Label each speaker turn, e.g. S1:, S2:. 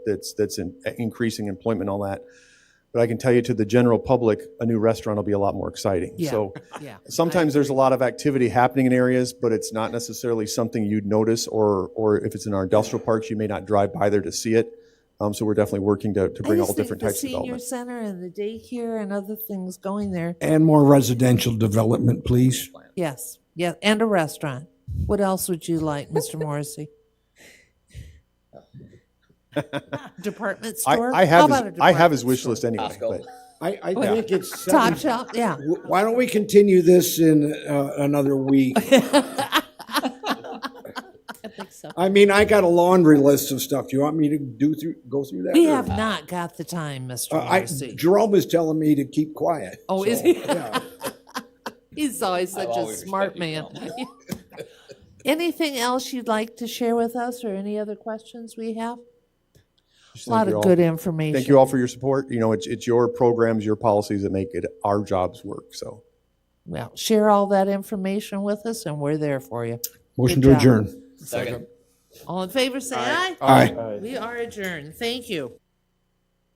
S1: that's, that's in- increasing employment and all that. But I can tell you to the general public, a new restaurant will be a lot more exciting.
S2: Yeah.
S1: So
S2: Yeah.
S1: sometimes there's a lot of activity happening in areas, but it's not necessarily something you'd notice or, or if it's in our industrial parks, you may not drive by there to see it. Um, so we're definitely working to, to
S3: I
S1: bring
S3: just
S1: all
S3: think
S1: different types of
S3: The senior
S1: development.
S3: center and the daycare and other things going there.
S4: And more residential development, please.
S3: Yes, yeah, and a restaurant. What else would you like, Mr. Morrissey? Department
S1: I,
S3: store?
S1: I
S3: How
S1: have,
S3: about
S1: his-
S3: a
S1: I have his
S3: department
S1: wish
S3: store?
S1: list anyway, but
S4: I, I
S3: Yeah.
S4: think it's.
S3: Top
S4: seven-
S3: shop, yeah.
S4: W- Why don't we continue this in uh, another week?
S2: I think so.
S4: I mean, I got a laundry list of stuff. Do you want me to do through, go through that?
S3: We
S4: or-
S3: have not got the time, Mr.
S4: Uh, I,
S3: Morrissey.
S4: Jerome is telling me to keep quiet.
S3: Oh,
S4: so,
S3: is he?
S4: yeah.
S3: He's always such a smart man. Anything else you'd like to share with us or any other questions we have?
S1: just
S3: A lot
S1: thank you
S3: of
S1: all.
S3: good information.
S1: Thank you all for your support. You know, it's, it's your programs, your policies that make it our jobs work, so.
S3: Well, share all that information with us and we're there for you.
S4: Motion
S3: Good
S4: to
S3: job.
S4: adjourn.
S5: Second.
S3: All in favor, say aye.
S4: Aye.
S3: We are adjourned. Thank you.